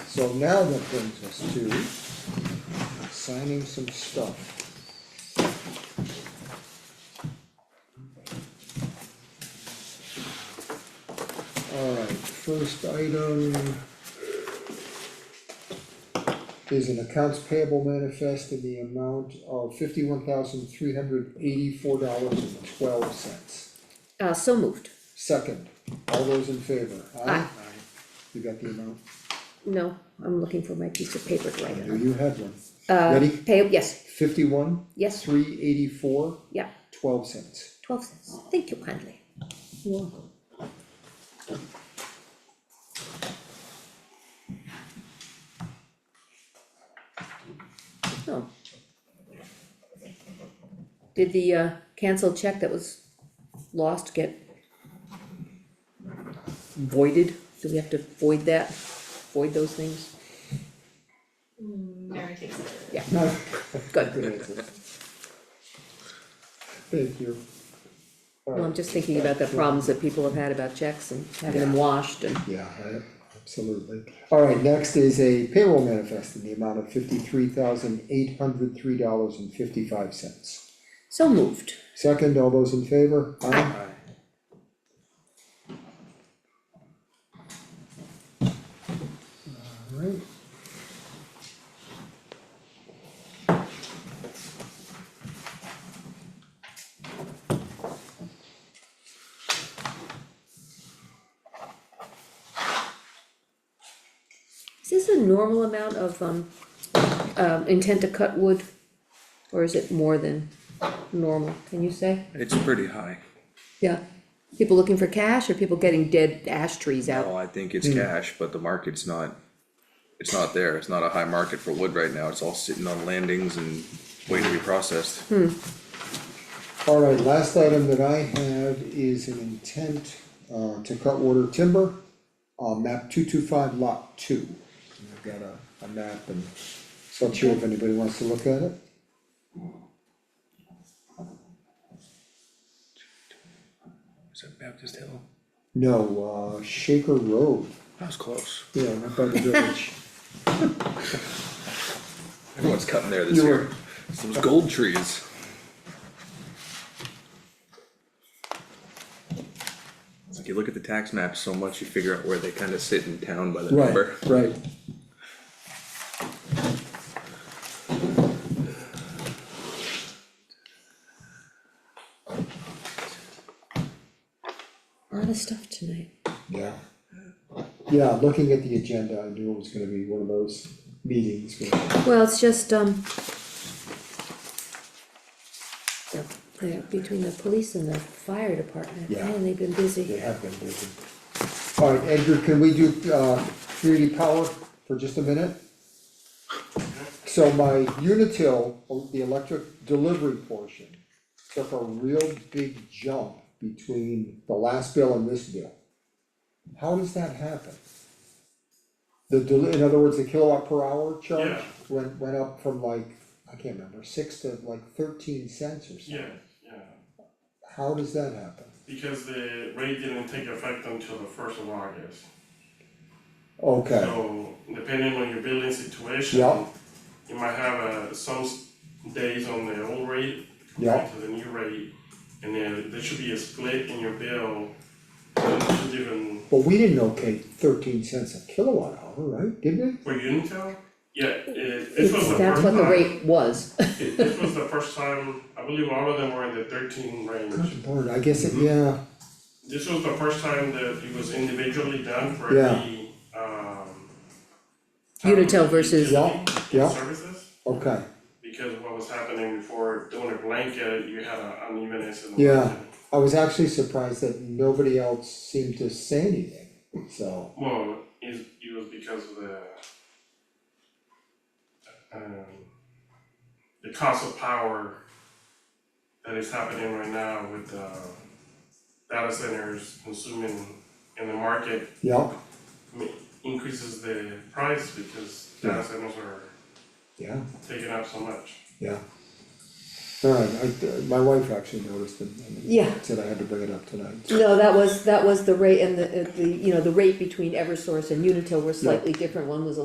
So now that brings us to signing some stuff. Alright, first item is an accounts payable manifest in the amount of fifty-one thousand three hundred eighty-four dollars and twelve cents. Uh, so moved, Second, all those in favor, aye? Aye. You got the amount? no, I'm looking for my piece of paper to write it Do on. Uh, you have one? Ready? Pay, yes, Fifty-one, yes, three eighty-four, yeah, twelve cents. twelve cents, thank you kindly. Oh. You're welcome. Oh. Did the, uh, canceled check that was lost get voided? Do we have to void that, void those things? Mary takes it. Yeah, No, good. good answer. Thank you. Well, I'm just thinking about the problems that people have had about checks and having them washed and, Yeah, I- absolutely. Alright, next is a payroll manifest in the amount of fifty-three thousand eight hundred three dollars and fifty-five cents. so moved. Second, all those in favor? Aye. Alright. Is this a normal amount of, um, um, intent to cut wood? Or is it more than normal, can you say? It's pretty high. Yeah, people looking for cash or people getting dead ash trees out? Well, I think Hmm. it's cash, but the market's not, it's not there. It's not a high market for wood right now. It's all sitting on landings and waiting to be processed. Hmm. Alright, last item that I have is an intent, uh, to cut water timber, on map two two five lot two. And I've got a, a map and, so I'm sure if anybody wants to look at it. Is that Baptist Hill? No, uh, Shaker Road, That was close. yeah, not by the village. Everyone's cutting there this You year. It's those gold trees. It's like you look at the tax maps so much, you figure out where they kinda sit in town by the number. Right, right. A lot of stuff tonight. Yeah. Yeah, looking at the agenda, I knew it was gonna be one of those meetings, where- Well, it's just, um. the- the- between the police and the fire department, Yeah. man, they've been busy. they have been busy. Alright, Edgar, can we do, uh, community power for just a minute? So my Unitil, the electric delivery portion, took a real big jump between the last bill and this bill. How does that happen? The deli- in other words, the kilowatt per hour charge Yeah. went, went up from like, I can't remember, six to like thirteen cents or something. Yeah, yeah, How does that happen? because the rate didn't take effect until the first of August. Okay. So depending on your billing situation, Yeah. you might have uh some s- days on the old rate Yeah. compared to the new rate. And then there should be a split in your bill, and it should even, But we didn't okay thirteen cents a kilowatt hour, right, did we? for Unitel, yeah, it, this It's, was the first time. that's what the rate was. it- This was the first time, I believe all of them were in the thirteen range. Good lord, I guess it, yeah, This was the first time that it was individually done for Yeah. the, um. Unitel versus- Yeah, yeah. Services, okay, because what was happening before, doing a blanket, you had an unevenness in the Yeah. market. I was actually surprised that nobody else seemed to say anything, so, Well, it, it was because of the. Um, the cost of power that is happening right now with, uh, data centers consuming in the market yeah, increases the price because data centers are yeah, taking up so much. yeah. Alright, I, uh, my wife actually noticed it, and Yeah. said I had to bring it up tonight, No, that was, that was the rate and the, uh, the, you know, the rate between Eversource and Unitil were slightly different, one was a